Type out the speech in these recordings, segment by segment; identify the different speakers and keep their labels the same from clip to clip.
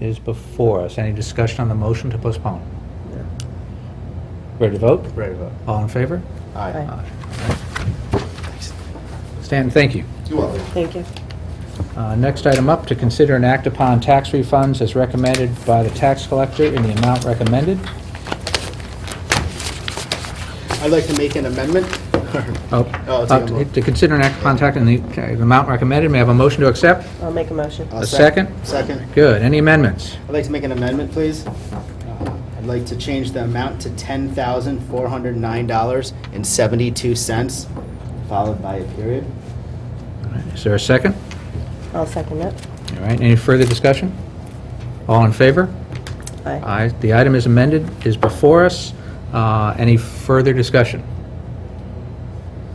Speaker 1: is before us. Any discussion on the motion to postpone? Ready to vote?
Speaker 2: Ready to vote.
Speaker 1: All in favor?
Speaker 2: Aye.
Speaker 1: Aye. Stan, thank you.
Speaker 2: You are.
Speaker 3: Thank you.
Speaker 1: Uh, Next item up, to consider and act upon tax refunds as recommended by the tax collector in the amount recommended.
Speaker 2: I'd like to make an amendment.
Speaker 1: Oh,
Speaker 2: I'll take a
Speaker 1: uh,
Speaker 2: vote.
Speaker 1: To consider and act upon tax in the okay, the amount recommended, may I have a motion to accept?
Speaker 3: I'll make a motion.
Speaker 2: I'll
Speaker 1: A
Speaker 2: sec-
Speaker 1: second?
Speaker 2: Second.
Speaker 1: Good. Any amendments?
Speaker 2: I'd like to make an amendment, please. Uh, I'd like to change the amount to $10,409.72, followed by a period.
Speaker 1: All right, Is there a second?
Speaker 3: I'll second it.
Speaker 1: All right, any further discussion? All in favor?
Speaker 3: Aye.
Speaker 1: Aye. The item is amended, is before us. Uh, Any further discussion?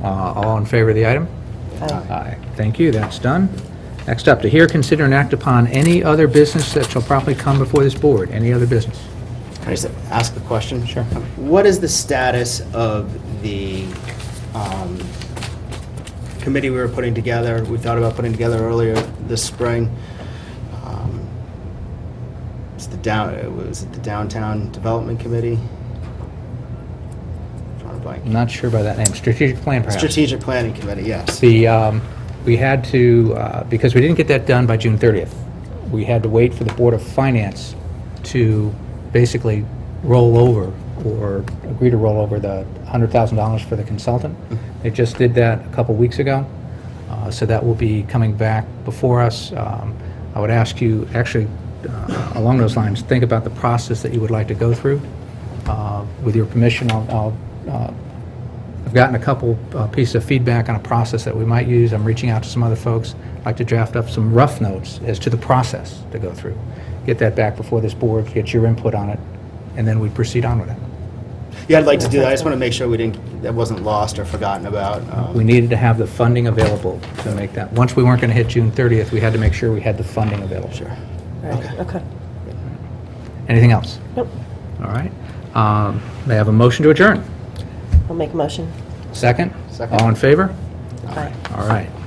Speaker 1: Uh, All in favor of the item?
Speaker 3: Aye.
Speaker 1: Aye. Thank you, that's done. Next up, to hear, consider, and act upon any other business that shall properly come before this board, any other business.
Speaker 2: Can I just ask a question?
Speaker 1: Sure.
Speaker 2: What is the status of the um, committee we were putting together? We thought about putting together earlier this spring. Um, It's the down, it was it the Downtown Development Committee? Drawing a
Speaker 1: I'm
Speaker 2: blank.
Speaker 1: not sure by that name, strategic plan perhaps.
Speaker 2: Strategic Planning Committee, yes.
Speaker 1: The, um, we had to, uh, because we didn't get that done by June 30th, we had to wait for the Board of Finance to basically roll over or agree to roll over the $100,000 for the consultant. They just did that a couple weeks ago, uh, so that will be coming back before us. Um, I would ask you, actually, uh, along those lines, think about the process that you would like to go through. Uh, With your permission, I'll I'll, uh, I've gotten a couple uh, pieces of feedback on a process that we might use. I'm reaching out to some other folks. I'd like to draft up some rough notes as to the process to go through. Get that back before this board, get your input on it, and then we proceed on with it.
Speaker 2: Yeah, I'd like to do that. I just want to make sure we didn't, that wasn't lost or forgotten about. Um,
Speaker 1: We needed to have the funding available to make that. Once we weren't going to hit June 30th, we had to make sure we had the funding available.
Speaker 2: Sure.
Speaker 3: Right, okay.
Speaker 1: Anything else?
Speaker 3: Nope,
Speaker 1: All right. Um, May I have a motion to adjourn?
Speaker 3: I'll make a motion.
Speaker 1: Second?
Speaker 2: Second.
Speaker 1: All in favor?
Speaker 3: Aye.
Speaker 1: All right.